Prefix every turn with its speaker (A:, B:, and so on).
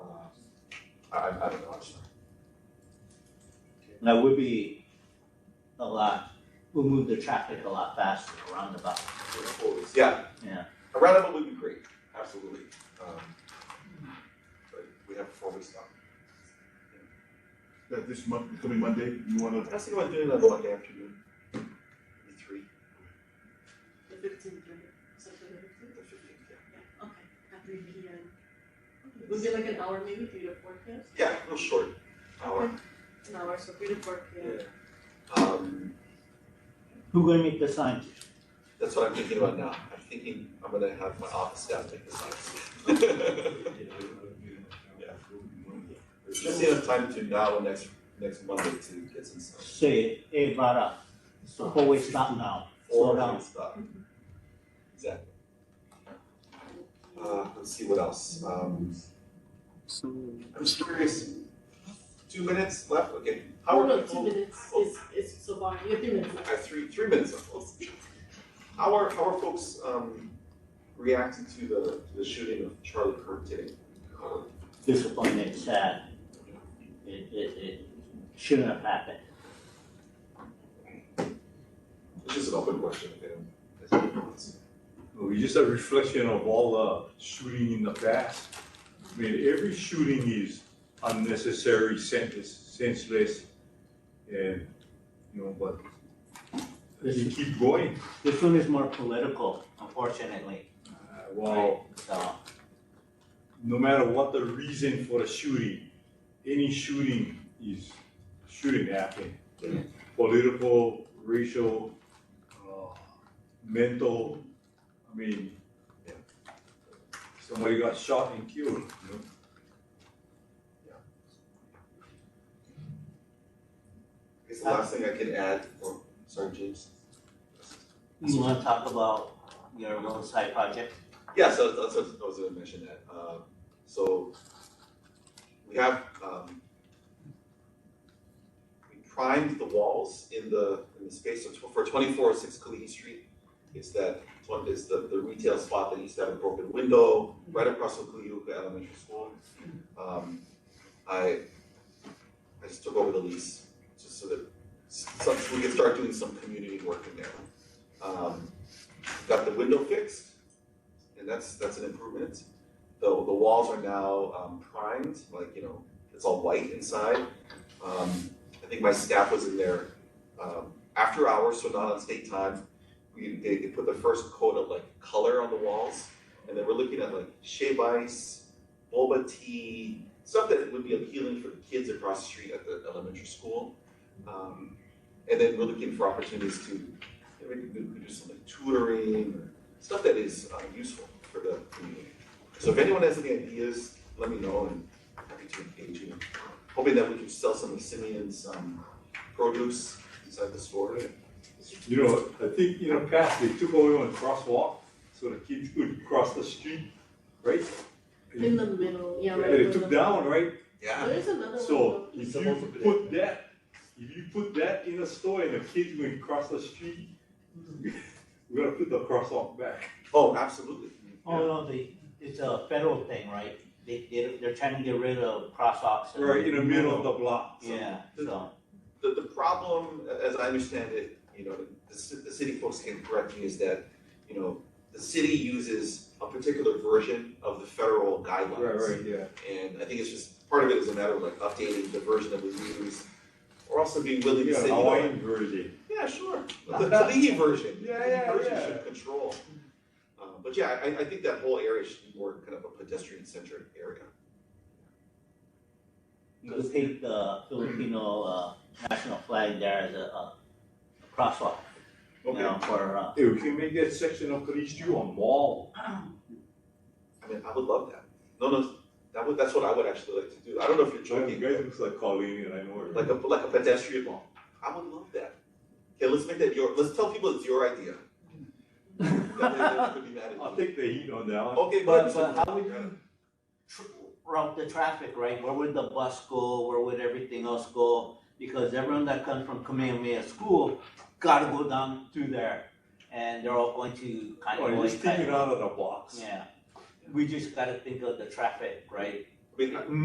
A: I, I don't know, I'm sorry.
B: That would be a lot, would move the traffic a lot faster around the bus.
A: We're forwards. Yeah.
B: Yeah.
A: A roundabout would be great, absolutely. Um, But we have four weeks left.
C: That Uh, this month, coming Monday, you wanna,
A: I was thinking about doing that Monday afternoon. Maybe three,
D: The fifteenth, right? September
A: the
D: fifteenth?
A: fifteenth, yeah.
D: Yeah, okay, at three P M. Was it like an hour maybe, three to four P M?
A: Yeah, a little short, hour.
D: An hour, so three to four P M.
A: Yeah. Um,
B: Who gonna make the signs?
A: that's what I'm thinking about now. I'm thinking I'm gonna have my office staff make the signs. Just enough time to now and next, next Monday to get some stuff.
B: Say, hey, Vara, it's a four-way stop now, slow
A: Or
B: down. Mm-hmm.
A: stop. Exactly. Uh, let's see what else, um. I'm just curious, two minutes left, okay, how
D: Oh,
A: are
D: no, two
A: people,
D: minutes is, is so far, you have three minutes
A: I
D: left.
A: have three, three minutes left, Let's- how are, how are folks, um, reacting to the, to the shooting of Charlie Kirk today? Uh,
B: Disappointed, sad. It, it, it shouldn't have happened.
A: It's just an open question, if anyone has any comments.
E: Well, just a reflection of all the shooting in the past. I mean, every shooting is unnecessary, senseless, senseless, and, you know, but you keep going.
B: This one is more political, unfortunately,
E: Uh, Well,
B: so,
E: no matter what the reason for the shooting, any shooting is shooting happening. Political, racial, uh, mental, I mean, yeah. somebody got shot and killed, you know?
A: I guess the last thing I could add, oh, sorry, James.
B: you wanna talk about your roadside project?
A: Yeah, so that's what I was gonna mention that, uh, so we have, um, we primed the walls in the, in the space of, tw- for twenty-four oh six Kalidi Street. It's that, it's one, is the, the retail spot that used to have a broken window, right across from Kaliyuka Elementary School. Um, I, I just took over the lease, just so that, s- so we could start doing some community work in there. Um, got the window fixed, and that's that's an improvement. The the walls are now um, primed, like you know, it's all white inside. Um, I think my staff was in there um, after hours, so not on state time. We they, they put the first coat of like color on the walls, and then we're looking at like shave ice, boba tea, stuff that would be appealing for the kids across the street at the elementary school. Um, and then we're looking for opportunities to you know, maybe we could do some like tutoring or stuff that is uh, useful for the community. So if anyone has any ideas, let me know and happy to engage you. Hoping that we can sell some of Simeon's um, produce inside the store.
E: You know, I think in the past, they took away one crosswalk, so the kids could cross the street, right?
D: In the middle, yeah, right. in
E: They
D: the
E: took
D: middle.
E: down, right?
A: Yeah.
D: There's another one
E: So
D: though.
E: if you put that, if you put that in a store and the kids will cross the street, we gotta put the crosswalk back.
A: Oh, absolutely.
B: Oh, no, the, it's a federal thing, right? They, they, they're trying to get rid of crosswalks. and-
E: Right in the middle of the block.
B: Yeah, so,
A: The, the problem, a- as I understand it, you know, the, ci- the city folks can correct me, is that, you know, the city uses a particular version of the federal guidelines.
E: Right, right, yeah.
A: And I think it's just, part of it is a matter of like updating the version that we use, or also being willing to
E: Yeah,
A: say, you know,
E: Hawaiian version.
A: Yeah, sure. The Kalihi version.
E: Yeah,
A: The
E: yeah,
A: version
E: yeah.
A: should control. Um, but yeah, I, I think that whole area should be more kind of a pedestrian centric area.
B: you could take the Filipino, uh, national flag there as a, uh, a crosswalk, you know, for, uh,
E: Hey, we can make that section of Police Street a mall.
A: I mean, I would love that. No, no, that would, that's what I would actually like to do. I don't know if you're
E: You
A: joking.
E: guys looks like Colleen and I know her.
A: Like a, like a pedestrian mall. I would love that. Okay, let's make that your, let's tell people it's your idea. That way they could be mad
E: I'll
A: at you.
E: take the heat on that one.
A: Okay,
B: But,
A: but.
B: but how would you tr- route the traffic, right? Where would the bus go? Where would everything else go? Because everyone that comes from Kamehameha School gotta go down through there, and they're all going to kind of.
E: Oh,
B: go
E: just take it
B: inside.
E: out of the box.
B: Yeah, we just gotta think of the traffic, right?
A: I mean,